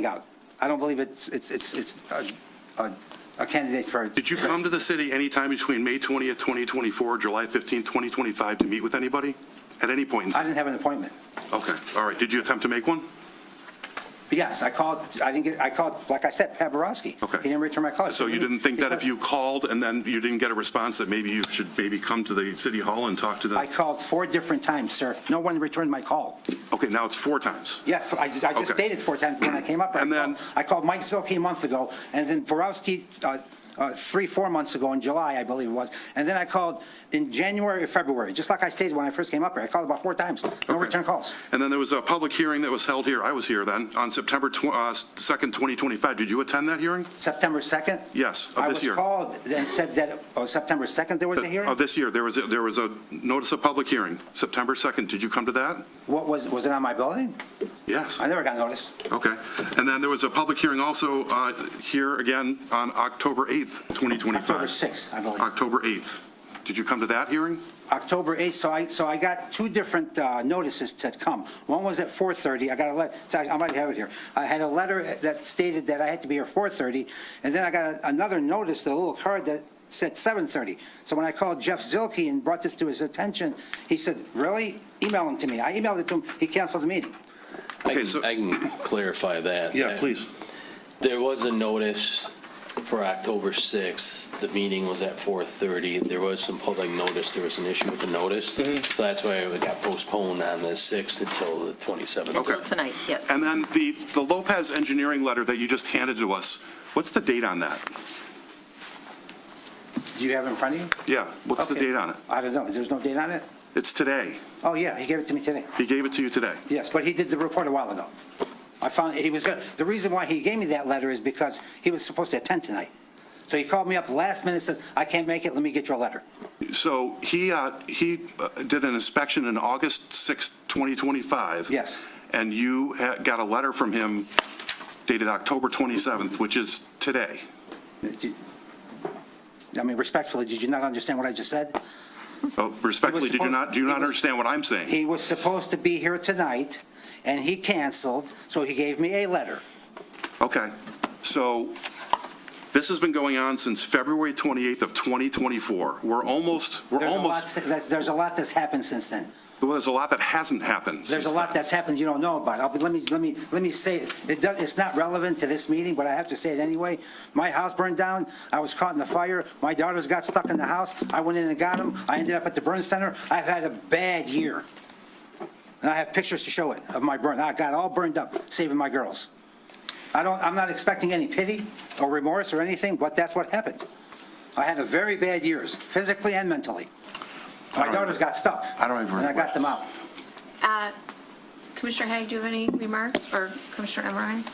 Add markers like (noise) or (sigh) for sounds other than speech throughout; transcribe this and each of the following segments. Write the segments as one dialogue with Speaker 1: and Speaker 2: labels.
Speaker 1: out. I don't believe it's, it's, it's, it's a, a- a candidate for.
Speaker 2: Did you come to the city anytime between May 20th, 2024, July 15th, 2025 to meet with anybody? At any point? in
Speaker 1: I
Speaker 2: time?
Speaker 1: didn't have an appointment.
Speaker 2: Okay, all right. Did you attempt to make one?
Speaker 1: Yes, I called, I didn't get, I called, like I said, Pat Borowski.
Speaker 2: Okay.
Speaker 1: He didn't return my call.
Speaker 2: So you didn't think that if you called and then you didn't get a response, that maybe you should maybe come to the city hall and talk to
Speaker 1: I
Speaker 2: them?
Speaker 1: called four different times, sir. No one returned my call.
Speaker 2: Okay, now it's four times.
Speaker 1: Yes, I just, I just
Speaker 2: Okay.
Speaker 1: stated four times when I came up. I
Speaker 2: And then-
Speaker 1: called- I called Mike Zilke a month ago, and then Borowski, uh, uh, three, four months ago in July, I believe it was. And then I called in January or February, just like I stated when I first came up here. I called about four times. No
Speaker 2: Okay.
Speaker 1: return calls.
Speaker 2: And then there was a public hearing that was held here, I was here then, on September tw- uh, 2nd, 2025. Did you attend that hearing?
Speaker 1: September 2nd?
Speaker 2: Yes, of this year. Uh,
Speaker 1: I was called and said that, oh, September 2nd, there was a hearing?
Speaker 2: Of Oh, this year, there was, a- there was a notice of public hearing, September 2nd. Did you come to that?
Speaker 1: What was, was it on my building?
Speaker 2: Yes.
Speaker 1: I never got notice.
Speaker 2: Okay. And then there was a public hearing also uh, here again on October 8th, 2025.
Speaker 1: October 6th, I believe.
Speaker 2: October 8th. Did you come to that hearing?
Speaker 1: October 8th, so I, so I got two different uh, notices to come. One was at 4:30, I got a letter, I might have it here. I had a letter that stated that I had to be here 4:30, and then I got a- another notice, a little card that said 7:30. So when I called Jeff Zilke and brought this to his attention, he said, really? Email him to me. I emailed it to him, he canceled the meeting.
Speaker 2: Okay,
Speaker 3: I
Speaker 2: so-
Speaker 3: can, I can clarify that. There was a notice for October 6th. The meeting was at 4:30. There was some public notice. There was an issue with the notice.
Speaker 2: Mm-hmm.
Speaker 3: So that's why it got postponed on the 6th until the 27th.
Speaker 2: Okay.
Speaker 4: tonight, yes.
Speaker 2: And then the, the Lopez engineering letter that you just handed to us, what's the date on that?
Speaker 1: Do you have it in front of you?
Speaker 2: Yeah, what's the
Speaker 1: Okay.
Speaker 2: date on it?
Speaker 1: I don't know, there's no date on it?
Speaker 2: It's today.
Speaker 1: Oh, yeah, he gave it to me today.
Speaker 2: He gave it to you today.
Speaker 1: Yes, but he did the report a while ago. I found, he was gonna, the reason why he gave me that letter is because he was supposed to attend tonight. So he called me up last minute, says, I can't make it, let me get your letter.
Speaker 2: So he, uh, he uh, did an inspection in August 6th, 2025.
Speaker 1: Yes.
Speaker 2: And you ha- got a letter from him dated October 27th, which is today.
Speaker 1: Did- I mean, respectfully, did you not understand what I just said?
Speaker 2: Oh, Respectfully, did you not, do you
Speaker 1: He
Speaker 2: not
Speaker 1: was-
Speaker 2: understand what I'm saying?
Speaker 1: He was supposed to be here tonight, and he canceled, so he gave me a letter.
Speaker 2: Okay, so this has been going on since February 28th of 2024. We're almost, we're
Speaker 1: There's a lot,
Speaker 2: almost,
Speaker 1: that- there's a lot that's happened since then.
Speaker 2: well, there's a lot that hasn't happened.
Speaker 1: There's a
Speaker 2: since
Speaker 1: lot
Speaker 2: then.
Speaker 1: that's happened you don't know about. I'll be- Let me, let me, let me say, it. it does, it's not relevant to this meeting, but I have to say it anyway. My house burned down, I was caught in the fire, my daughters got stuck in the house, I went in and got them, I ended up at the burn center, I've had a bad year. And I have pictures to show it of my burn, I got all burned up, saving my girls. I don't, I'm not expecting any pity or remorse or anything, but that's what happened. I had a very bad years, physically and mentally. My daughters got stuck.
Speaker 2: I don't have
Speaker 1: And I got them out.
Speaker 4: Uh, Commissioner Haig, do you have any remarks, or Commissioner Emery?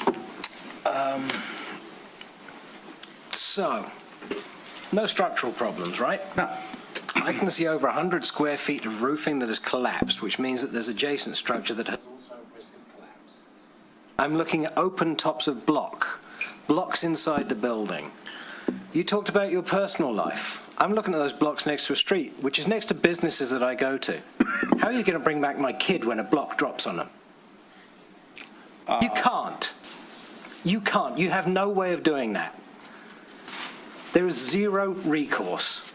Speaker 5: So, no structural problems, right?
Speaker 1: No.
Speaker 5: I can see over 100 square feet of roofing that has collapsed, which means that there's adjacent structure that has also risk of collapse. I'm looking at open tops of block, blocks inside the building. You talked about your personal life. I'm looking at those blocks next to a street, which is next to businesses that I go to. (coughs) How are you going to bring back my kid when a block drops on them?
Speaker 1: Uh,
Speaker 5: You can't. You can't. You have no way of doing that. There is zero recourse.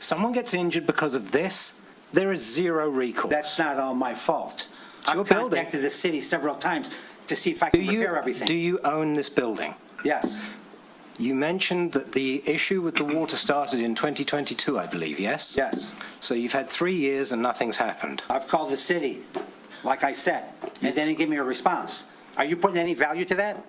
Speaker 5: Someone gets injured because of this, there is zero recourse.
Speaker 1: That's not all my fault.
Speaker 5: It's your
Speaker 1: I've
Speaker 5: building.
Speaker 1: contacted the city several times to see if I
Speaker 5: do
Speaker 1: can
Speaker 5: you,
Speaker 1: repair
Speaker 5: do
Speaker 1: everything.
Speaker 5: you own this building?
Speaker 1: Yes,
Speaker 5: You mentioned that the issue with the water started in 2022, I believe, yes?
Speaker 1: yes.
Speaker 5: So you've had three years and nothing's happened.
Speaker 1: I've called the city, like I said, and they didn't give me a response. Are you putting any value to that?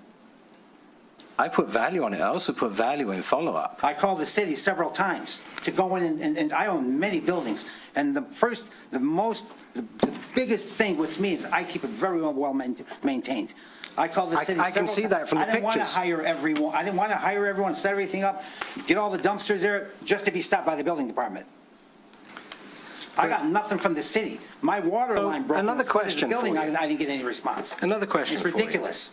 Speaker 5: I put value on it. I also put value in follow-up.
Speaker 1: I called the city several times to go in, and- and, and I own many buildings. And the first, the most, the the biggest thing with me is I keep it very well main- maintained. I called the
Speaker 5: I-
Speaker 1: city
Speaker 5: I can
Speaker 1: several
Speaker 5: see
Speaker 1: ti-
Speaker 5: that from the
Speaker 1: I didn't want
Speaker 5: pictures.
Speaker 1: to hire everyone, I didn't want to hire everyone, set everything up, get all the dumpsters there, just to be stopped by the building department. I got nothing from the city. My water
Speaker 5: So,
Speaker 1: line broke in the front
Speaker 5: another
Speaker 1: of the
Speaker 5: question for
Speaker 1: building,
Speaker 5: you.
Speaker 1: I I didn't get any response.
Speaker 5: Another question
Speaker 1: It's
Speaker 5: for you.
Speaker 1: ridiculous.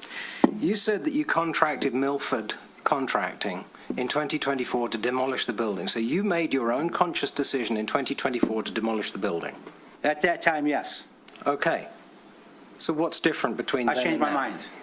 Speaker 5: You said that you contracted Milford Contracting in 2024 to demolish the building. So you made your own conscious decision in 2024 to demolish the building.
Speaker 1: At that time, yes,
Speaker 5: Okay. So what's different between
Speaker 1: I
Speaker 5: then
Speaker 1: changed my
Speaker 5: and now?
Speaker 1: mind.